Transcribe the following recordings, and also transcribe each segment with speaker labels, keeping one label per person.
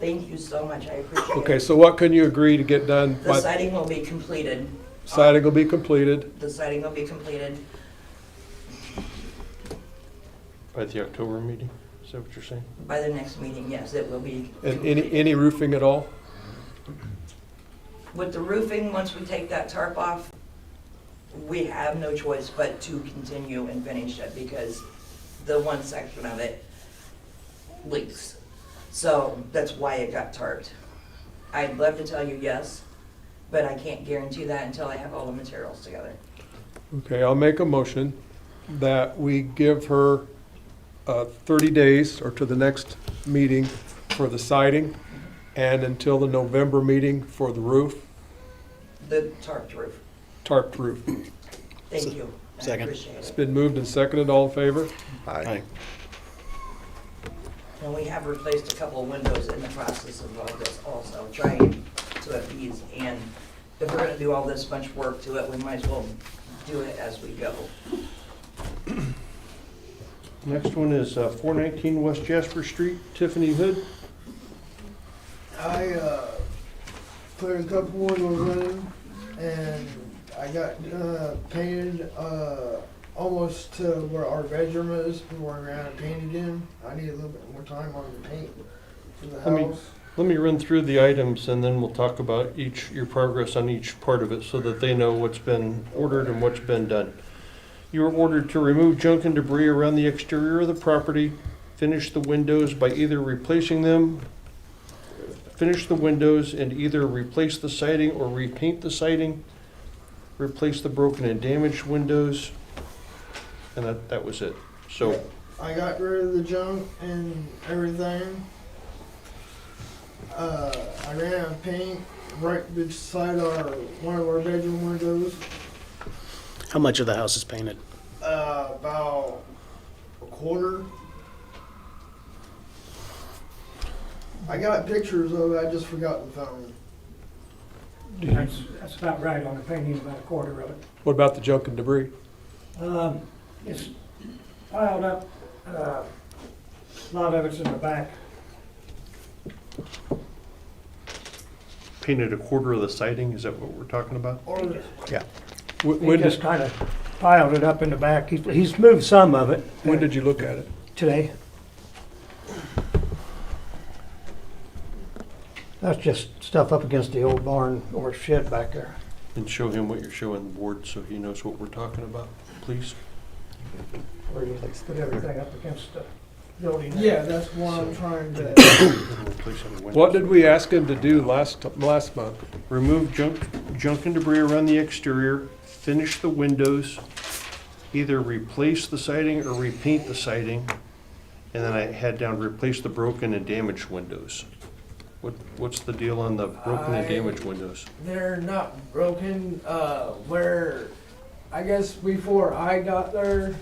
Speaker 1: Thank you so much, I appreciate it.
Speaker 2: Okay, so what can you agree to get done?
Speaker 1: The
Speaker 2: by
Speaker 1: siding will be completed.
Speaker 2: Siding will be completed
Speaker 1: The siding will be completed.
Speaker 3: By the October meeting, is that what you're saying?
Speaker 1: By the next meeting, yes, it will be.
Speaker 2: and any,
Speaker 1: complete.
Speaker 2: any roofing at all?
Speaker 1: With the roofing, once we take that tarp off, we have no choice but to continue and finish it because the one section of it leaks. So that's why it got tarped. I'd love to tell you yes, but I can't guarantee that until I have all the materials together.
Speaker 2: Okay, I'll make a motion that we give her uh, 30 days or to the next meeting for the siding and until the November meeting for the roof,
Speaker 1: The tarped roof.
Speaker 2: tarped roof.
Speaker 1: Thank you. I
Speaker 4: Second.
Speaker 1: appreciate
Speaker 2: It's
Speaker 1: it.
Speaker 2: been moved and seconded, all in favor?
Speaker 4: Aye.
Speaker 1: And we have replaced a couple of windows in the process of all this also, trying to appease. And if we're gonna do all this much work to it, we might as well do it as we go.
Speaker 3: Next one is uh, 419 West Jasper Street, Tiffany Hood.
Speaker 5: I uh, cleared a couple windows in and I got uh, painted uh, almost to where our bedroom is before I ran out of paint again. I need a little bit more time on the paint for the
Speaker 3: I mean-
Speaker 5: house.
Speaker 3: Let me run through the items and then we'll talk about each, your progress on each part of it so that they know what's been ordered and what's been done. You were ordered to remove junk and debris around the exterior of the property, finish the windows by either replacing them, finish the windows and either replace the siding or repaint the siding, replace the broken and damaged windows, and that, that was it. So
Speaker 5: I got rid of the junk and everything. Uh, I ran out of paint right beside our one of our bedroom windows.
Speaker 4: How much of the house is painted?
Speaker 5: Uh, about a quarter. I got pictures of it, I just forgot the phone.
Speaker 6: That's, that's about right on the painting, about a quarter of it.
Speaker 2: What about the junk and debris?
Speaker 6: Um, it's piled up, uh, a lot of it's in the back.
Speaker 3: painted a quarter of the siding, is that what we're talking about?
Speaker 5: Or,
Speaker 2: Wh-
Speaker 6: He
Speaker 2: When
Speaker 6: just
Speaker 2: did,
Speaker 6: kind of piled it up in the back. He's, he's moved some of it
Speaker 2: when did you look at it?
Speaker 6: today. That's just stuff up against the old barn or shed back there.
Speaker 3: And show him what you're showing the board so he knows what we're talking about, please.
Speaker 6: Where you put everything up against the building.
Speaker 5: yeah, that's why I'm trying to,
Speaker 2: What did we ask him to do last, last month?
Speaker 3: Remove junk, junk and debris around the exterior, finish the windows, either replace the siding or repaint the siding. And then I had down, replace the broken and damaged windows. What, what's the deal on the broken and
Speaker 5: I-
Speaker 3: damaged windows?
Speaker 5: they're not broken, uh, where, I guess before I got there,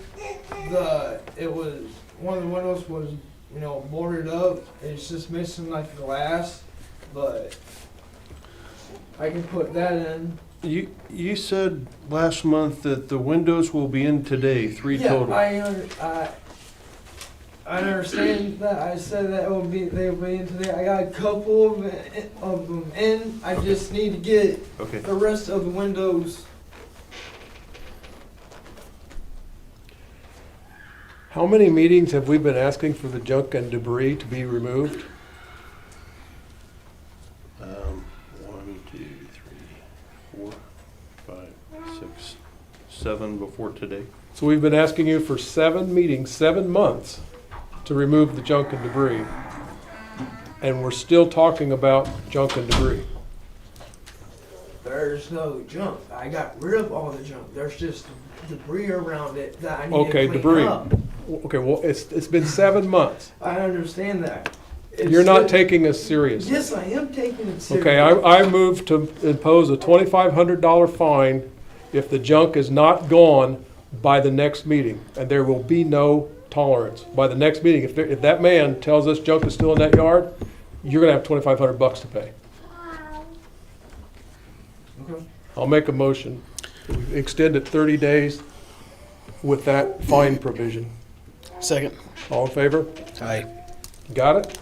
Speaker 5: the, it was, one of the windows was, you know, boarded up, it's just missing like glass, but I can put that in.
Speaker 3: You, you said last month that the windows will be in today, three
Speaker 5: yeah,
Speaker 3: total.
Speaker 5: I, under- I, I understand that. I said that it would be they would be in today. I got a couple of, it- of them in. I just need to get
Speaker 3: Okay.
Speaker 5: the rest of the windows.
Speaker 2: How many meetings have we been asking for the junk and debris to be removed?
Speaker 3: Um, one, two, three, four, five, six, seven before today.
Speaker 2: So we've been asking you for seven meetings, seven months, to remove the junk and debris. And we're still talking about junk and debris.
Speaker 5: There's no junk. I got rid of all the junk. There's just debris around it that I need
Speaker 2: Okay,
Speaker 5: to clean
Speaker 2: debris.
Speaker 5: up.
Speaker 2: Okay, well, it's, it's been seven months.
Speaker 5: I understand that. It's
Speaker 2: You're not
Speaker 5: still-
Speaker 2: taking us seriously.
Speaker 5: Yes, I am taking it seriously.
Speaker 2: Okay, I, I move to impose a twenty-five hundred dollar fine if the junk is not gone by the next meeting. And there will be no tolerance. By the next meeting, if, there- if that man tells us junk is still in that yard, you're gonna have twenty-five hundred bucks to pay.
Speaker 5: Okay.
Speaker 2: I'll make a motion. We Extend it 30 days with that fine provision.
Speaker 4: Second.
Speaker 2: All in favor?
Speaker 4: Aye.
Speaker 2: Got it?